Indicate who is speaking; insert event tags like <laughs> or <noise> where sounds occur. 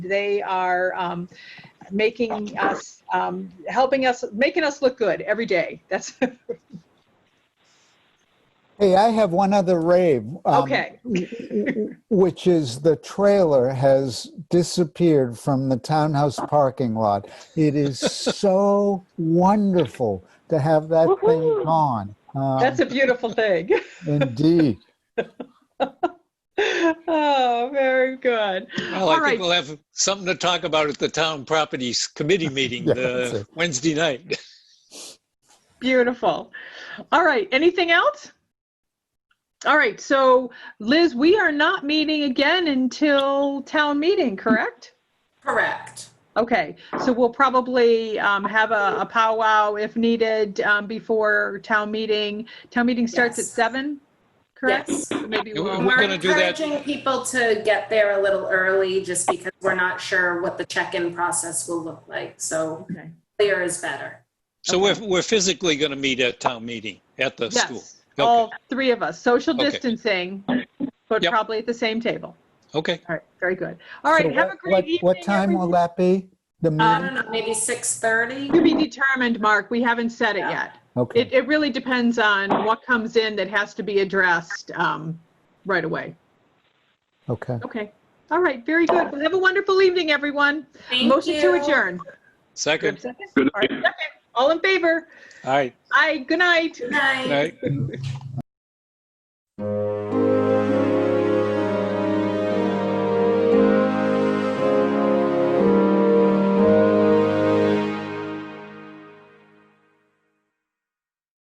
Speaker 1: They are um, making us, um, helping us, making us look good every day. That's <laughs>
Speaker 2: Hey, I have one other rave. um,
Speaker 1: okay.
Speaker 2: Which is the trailer has disappeared from the townhouse parking lot. It is so wonderful to have that
Speaker 1: Woohoo.
Speaker 2: thing gone. Um,
Speaker 1: That's a <laughs> beautiful thing.
Speaker 2: Indeed.
Speaker 1: oh, very good. All
Speaker 3: Well, I
Speaker 1: right.
Speaker 3: think we'll have something to talk about at the town properties committee meeting
Speaker 2: Yeah, that's
Speaker 3: uh,
Speaker 2: it.
Speaker 3: Wednesday night. <laughs>
Speaker 1: Beautiful. All right. Anything else? All right. So, Liz, we are not meeting again until town meeting, correct?
Speaker 4: Correct.
Speaker 1: Okay. So, we'll probably um, have a, a powwow if needed um, before town meeting. Town meeting starts at
Speaker 4: Yes.
Speaker 1: 7, correct?
Speaker 4: Yes.
Speaker 1: So Maybe
Speaker 3: And we-
Speaker 1: we'll.
Speaker 4: And We're
Speaker 3: gonna do that-
Speaker 4: encouraging people to get there a little early just because we're not sure what the check-in process will look like. So
Speaker 1: Okay.
Speaker 4: clear is better.
Speaker 3: So we're, we're physically going to meet at town meeting at the school.
Speaker 1: Yes,
Speaker 3: Okay.
Speaker 1: all three of us, social
Speaker 3: Okay.
Speaker 1: distancing, but
Speaker 3: Yep.
Speaker 1: probably at the same table.
Speaker 3: Okay.
Speaker 1: All right, very good. All
Speaker 2: So
Speaker 1: right, have
Speaker 2: what-
Speaker 1: a
Speaker 2: what-
Speaker 1: great evening.
Speaker 2: What time
Speaker 1: everyone.
Speaker 2: will
Speaker 1: Um,
Speaker 2: that be? The
Speaker 4: I
Speaker 2: meeting?
Speaker 4: don't know, maybe 6:30?
Speaker 1: To be determined, Mark, we haven't said it yet. It,
Speaker 2: Okay,
Speaker 1: it really depends on what comes in that has to be addressed um, right away.
Speaker 2: okay.
Speaker 1: Okay, all right, very good. Well, Have a wonderful evening, everyone.
Speaker 4: Thank
Speaker 1: Motion to
Speaker 4: you.
Speaker 1: adjourn.
Speaker 3: Second.
Speaker 1: Second? All right, second. All in favor?
Speaker 3: All right.
Speaker 1: Aye, good night.
Speaker 4: Good
Speaker 3: All
Speaker 4: night.
Speaker 3: right.
Speaker 2: All